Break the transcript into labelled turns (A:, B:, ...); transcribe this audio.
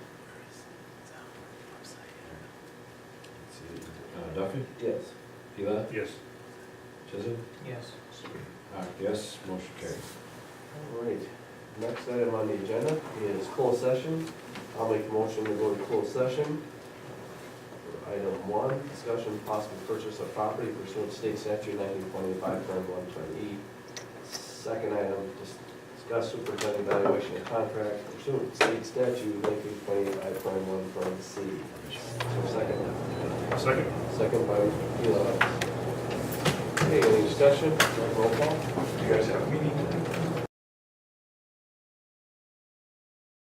A: Duffy,
B: Yes.
A: Eli,
C: Yes.
A: Chisholm,
D: Yes.
A: Mark, yes, motion carries.
B: All right, next item on the agenda is closed session. I'll make a motion to go to closed session. For Item one, discussion of possible purchase of property pursuant to state statute nineteen twenty-five, term one twenty-eight. Second item, dis- discuss superintendent evaluation of contract pursuant to state statute nineteen twenty-five, term one twenty C. So second,
C: Second?
B: second by Eli. Okay, any discussion? Roll call.
E: You guys have a meeting?